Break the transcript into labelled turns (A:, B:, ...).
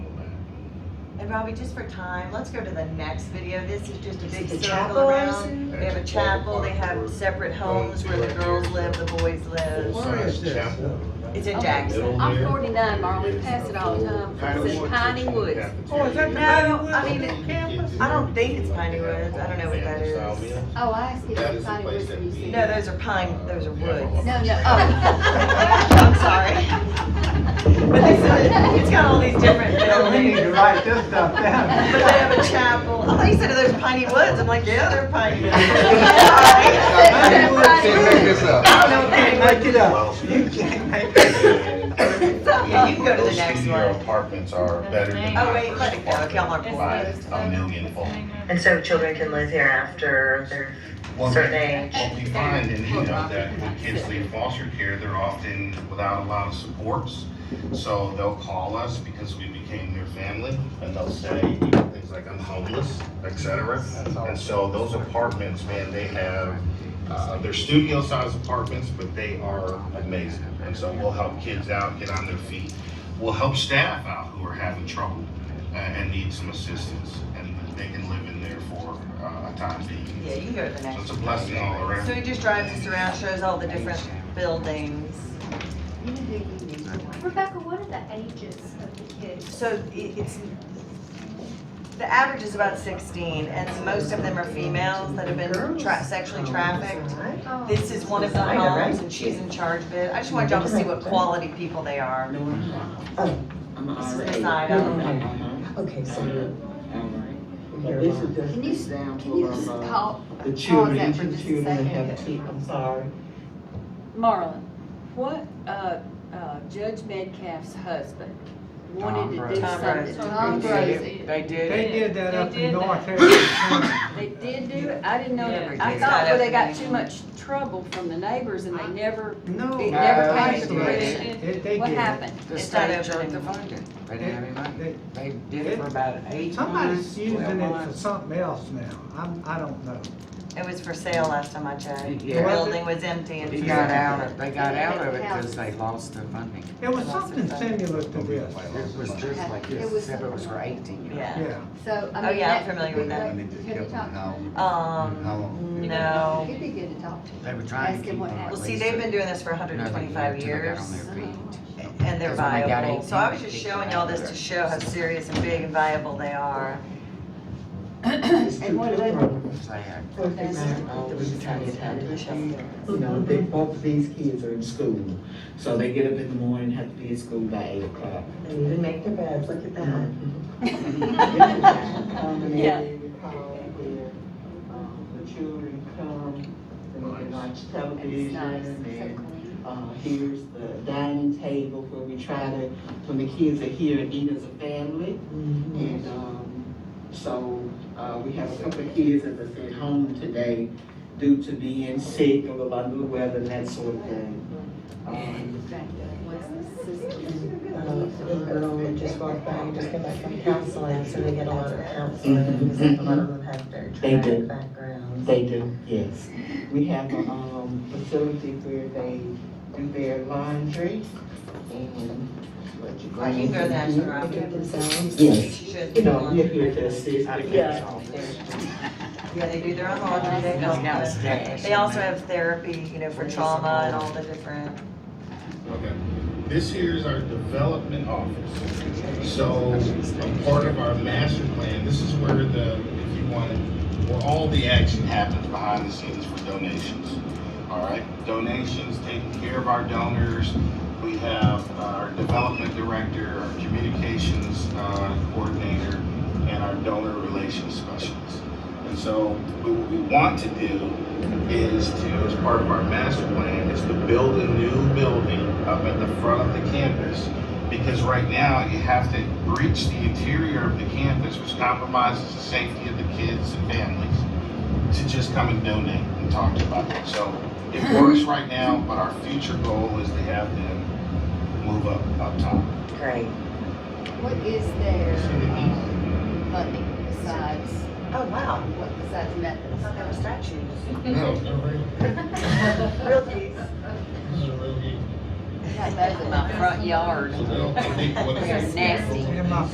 A: And Robbie, just for time, let's go to the next video. This is just a
B: Is
A: big
B: it the
A: circle
B: chapel
A: around.
B: rising?
A: They have a
C: That's a
A: chapel, they
C: chapel.
A: have separate homes where the girls live, the boys live.
D: Where is this?
A: It's in Jackson.
E: I'm forty-nine, Marlon, we pass it all the time, it's in Piney Woods.
D: Oh, is that the
A: No,
D: Hollywood
A: I mean, it-
D: campus?
A: I don't think it's Piney Woods. I don't know what that is.
E: Oh, I asked you
C: That is
E: if
C: the
E: Piney
C: place
E: Woods
C: that
E: used
C: we-
E: to.
A: No, those are pine, those are woods.
E: No, no,
A: I'm
E: oh.
A: sorry. But they said it- it's got all these different
D: Yeah, we need to
A: buildings.
D: write this stuff
A: But
D: down.
A: they have a chapel. I thought you said there's Piney Woods. I'm like, yeah, they're Piney Woods. Sorry. I don't know.
D: Can't make it up. You can't make it up.
A: Yeah, you can go to the next
C: Those
A: one.
C: studio apartments are better than.
A: Oh, wait, let it go. Okay, I'm on board.
C: By a million fold.
F: And so children can live here after they're
C: What
F: certain
C: we-
F: age.
C: what we find, and you know, that when kids leave foster care, they're often without a lot of supports. So they'll call us because we became their family, and they'll say you know, things like, I'm homeless, et cetera. And so those apartments, man, they have, uh, they're studio-sized apartments, but they are amazing. And so we'll help kids out, get on their feet. We'll help staff out who are having trouble uh, and need some assistance, and they can live in there for uh, a time being.
A: Yeah, you can go to the
C: So
A: next.
C: it's a blessing all around.
A: So he just drives us around, shows all the different buildings.
G: Rebecca, what are the ages of the kids?
A: So it- it's, the average is about sixteen, and most of them are females that have been tra- sexually trafficked.
G: Oh.
A: This is one of the homes, and she's in charge of it. I just wanted y'all to see what quality people they are.
H: I'm
A: This is
H: already.
A: beside them.
H: Okay, so. um,
B: This is just
E: Can
B: an
E: you- Can
B: example
E: you just
B: of, uh,
E: call,
D: the
E: pause
D: children,
H: Oh,
E: that for
D: each
E: just a
D: children that have
E: second?
D: teeth, I'm sorry.
I: Marlon, what, uh, uh, Judge Metcalf's husband
D: Tom
I: wanted to
D: Brady.
I: do
A: Tom
I: something.
A: Brady.
E: Tom Brady.
A: They
D: They
A: do.
D: did that
I: They
D: up in
I: did
D: North
I: that.
D: Harris.
I: They did do it, I didn't know, that.
A: Yeah.
I: I thought, well, they got too much trouble from the neighbors and they never,
D: No.
I: It never
D: uh,
I: came to fruition.
D: They, they
I: what
D: did.
I: happened?
J: The
A: It's
J: state
A: not
J: took
A: open
J: the
A: anymore.
J: funding. They didn't have any money.
D: They-
J: They did it for about eight months,
D: Somebody's
J: twelve
D: using it for
J: months.
D: something else now. I'm, I don't know.
A: It was for sale last time I checked. The
J: Yeah.
A: building was empty and.
J: They
A: for
J: got
A: sale.
J: out of, they got out of it because they lost the funding.
D: It was something similar to this.
J: It was just like this,
E: It was-
J: except it was for eighteen years.
A: Yeah.
D: Yeah.
E: so, I
A: Oh,
E: mean.
A: yeah, I'm
E: that-
A: familiar with that.
E: Have you talked to him?
A: Um, no.
E: It'd be good to talk to him.
J: They were trying
E: Ask
J: to
E: him
J: keep
E: what
J: them.
E: happened.
A: Well, see, they've been doing this for hundred and twenty-five years, and they're
J: Because when they got
A: viable. So I was just
J: 18,
A: showing y'all this to show how serious and big and viable they are.
B: And what level?
J: Perfect
B: You know, they, both of these kids are in school, so they get up in the morning, have to be at school by eight o'clock.
H: They even make their beds, look at that.
I: Yeah.
B: Mm-hmm. The children come, and they watch
E: It's
B: television,
E: nice, it's
B: and
E: so clean.
B: uh, here's the dining table where we try to, when the kids are here, and eat as a family.
H: Uh,
B: And, um, so, uh, we have a couple of kids, as I said, home today due to being sick or a lot of the weather and that sort of thing. Um,
E: What's the system?
H: Little girl that just walked by, and just came back from counseling, so they get a lot of counseling, because a lot of them have their
B: They do.
H: traumatic backgrounds.
B: They do, yes. We have a, um, facility where they do their laundry and what you.
A: Like, you can go to the National
H: They do it
A: Roundtable.
H: themselves.
B: Yes,
A: She should.
B: you know, we're here to assist.
H: Yeah.
A: Yeah, they do their own laundry, they help with- They also have therapy, you know, for trauma and all the different.
C: Okay. This here is our development office. So a part of our master plan, this is where the, if you want it, where all the action happens behind the scenes for donations. All right, donations, taking care of our donors. We have our development director, our communications uh, coordinator, and our donor relations specialist. And so what we want to do is to, as part of our master plan, is to build a new building up at the front of the campus. Because right now, you have to breach the interior of the campus, which compromises the safety of the kids and families, to just come and donate and talk to about it. So it works right now, but our future goal is to have them move up, up top.
H: Great.
E: What is their um, funding besides,
A: Oh, wow.
E: what besides methods?
A: There were statues.
C: No, no,
A: Real deep.
I: Those in my front yard,
C: I think what
I: they're nasty.
D: And my